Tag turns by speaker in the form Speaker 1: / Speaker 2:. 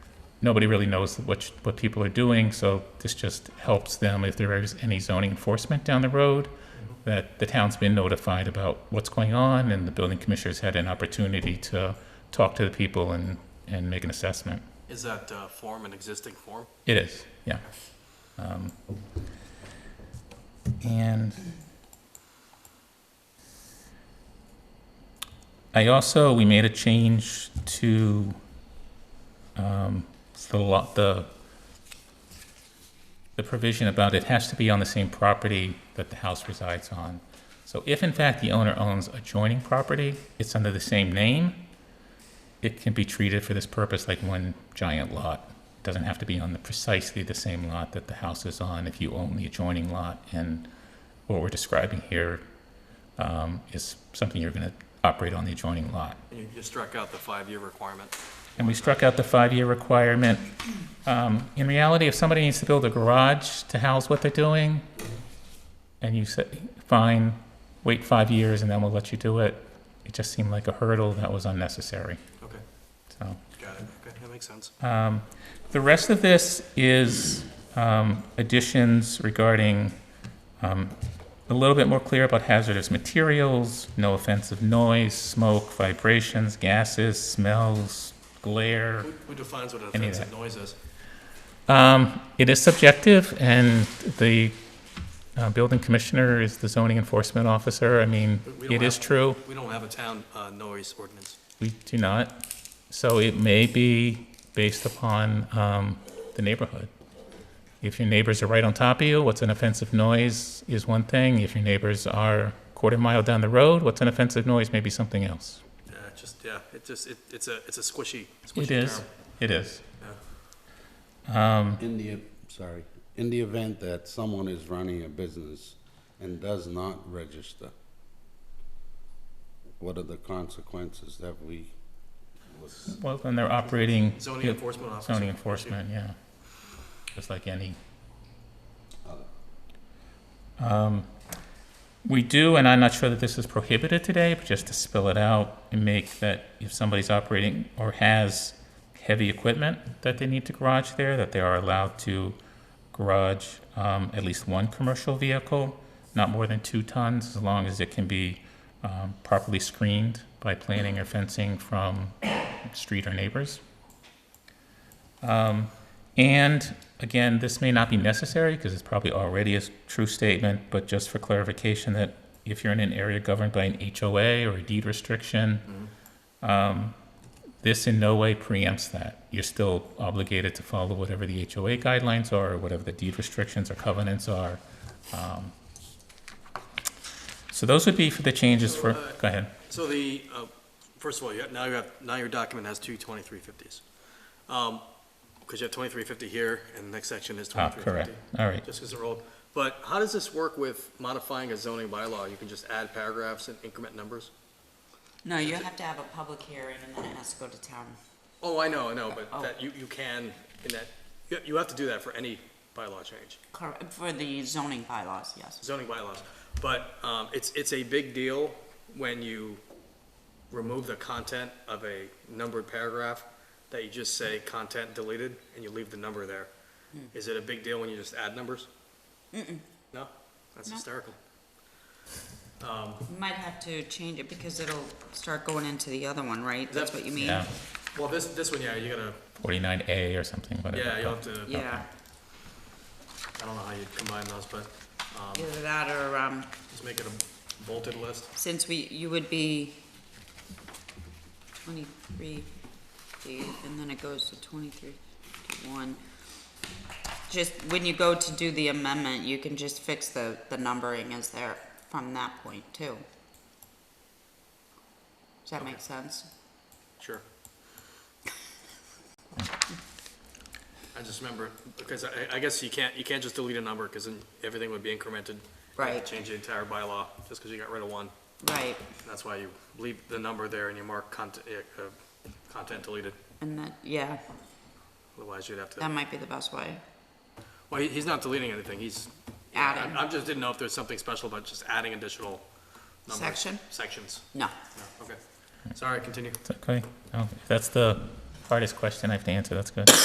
Speaker 1: nobody really knows what, sh- what people are doing, so this just helps them if there is any zoning enforcement down the road, that the town's been notified about what's going on, and the building commissioner's had an opportunity to talk to the people and, and make an assessment.
Speaker 2: Is that uh, form an existing form?
Speaker 1: It is, yeah. Um, And I also, we made a change to um, the lot, the, the provision about it has to be on the same property that the house resides on. So if in fact the owner owns adjoining property, it's under the same name, it can be treated for this purpose like one giant lot. It Doesn't have to be on the precisely the same lot that the house is on if you own the adjoining lot. And what we're describing here um, is something you're going to operate on the adjoining lot.
Speaker 2: And you just struck out the five-year requirement.
Speaker 1: And we struck out the five-year requirement. Um, In reality, if somebody needs to build a garage to house what they're doing, and you say, fine, wait five years and then we'll let you do it, it just seemed like a hurdle that was unnecessary,
Speaker 2: Okay,
Speaker 1: so.
Speaker 2: got it. Okay, that makes sense.
Speaker 1: Um, The rest of this is um, additions regarding um, a little bit more clear about hazardous materials, no offensive noise, smoke, vibrations, gases, smells, glare.
Speaker 2: Who- Who defines what
Speaker 1: Any of
Speaker 2: offensive noise is?
Speaker 1: Um, It is subjective, and the uh, building commissioner is the zoning enforcement officer. I mean,
Speaker 2: But we don't
Speaker 1: it is
Speaker 2: have-
Speaker 1: true.
Speaker 2: We don't have a town uh, noise ordinance.
Speaker 1: We do not. So it may be based upon um, the neighborhood. If your neighbors are right on top of you, what's an offensive noise is one thing. If your neighbors are quarter mile down the road, what's an offensive noise may be something else.
Speaker 2: Yeah, it Uh, just, yeah, it just, it- it's a, it's a squishy, squishy
Speaker 1: It
Speaker 2: term.
Speaker 1: is, it is.
Speaker 3: In the, sorry, in the event that someone is running a business and does not register, what are the consequences that we was,
Speaker 1: Well, then they're operating.
Speaker 2: Zoning enforcement officer.
Speaker 1: Zoning enforcement, yeah. Just like any. Um, We do, and I'm not sure that this is prohibited today, but just to spell it out and make that if somebody's operating or has heavy equipment that they need to garage there, that they are allowed to garage um, at least one commercial vehicle, not more than two tons, as long as it can be um, properly screened by planning or fencing from street or neighbors. Um, And again, this may not be necessary because it's probably already a s- true statement, but just for clarification that if you're in an area governed by an HOA or a deed restriction, um, this in no way preempts that. You're still obligated to follow whatever the HOA guidelines are, or whatever the deed restrictions or covenants are. Um, So those would be for the changes for,
Speaker 2: So, uh,
Speaker 1: go ahead.
Speaker 2: So the, uh, first of all, you have- now you have, now your document has two 2350s. Because you have 2350 here, and the next section is
Speaker 1: Ah, correct.
Speaker 2: 2350.
Speaker 1: All right.
Speaker 2: Just because they're old. But how does this work with modifying a zoning bylaw? You can just add paragraphs and increment numbers?
Speaker 4: No, you have to have a public hearing and then it has to go to town.
Speaker 2: Oh, I know, I know, but
Speaker 4: Oh.
Speaker 2: that, you, you can, in that, you, you have to do that for any bylaw change,
Speaker 4: Cor- For the zoning bylaws, yes.
Speaker 2: zoning bylaws. But, um, it's, it's a big deal when you remove the content of a numbered paragraph, that you just say content deleted, and you leave the number there.
Speaker 4: Hmm.
Speaker 2: Is it a big deal when you just add numbers? No? That's
Speaker 4: No.
Speaker 2: hysterical.
Speaker 4: You Might have to change it because it'll start going into the other one, right? That's what you mean?
Speaker 1: Yeah,
Speaker 2: Well, this, this one, yeah, you gotta,
Speaker 1: 49A or something, whatever.
Speaker 2: yeah, you'll have to, I
Speaker 4: Yeah,
Speaker 2: don't know how you combine those, but, um,
Speaker 4: either that or, um,
Speaker 2: just make it a bolted list.
Speaker 4: since we, you would be twenty-three, and then it goes to twenty-three, one. Just, when you go to do the amendment, you can just fix the, the numbering as there from that point too. Does that make sense?
Speaker 2: Sure. I just remember, because I, I guess you can't, you can't just delete a number, because then everything would be incremented. You'd have to
Speaker 4: Right.
Speaker 2: Change the entire bylaw, just because you got rid of one.
Speaker 4: Right,
Speaker 2: That's why you leave the number there and you mark content, uh, content deleted.
Speaker 4: and that, yeah,
Speaker 2: Otherwise, you'd have
Speaker 4: that
Speaker 2: to,
Speaker 4: might be the best way.
Speaker 2: well, he- he's not deleting anything, he's. yeah,
Speaker 4: Adding.
Speaker 2: I I just didn't know if there's something special about just adding additional numbers.
Speaker 4: Section?
Speaker 2: Sections.
Speaker 4: No,
Speaker 2: No, Okay. Sorry, continue.
Speaker 1: Oh, It's okay. No, if that's the hardest question I have to answer. That's good.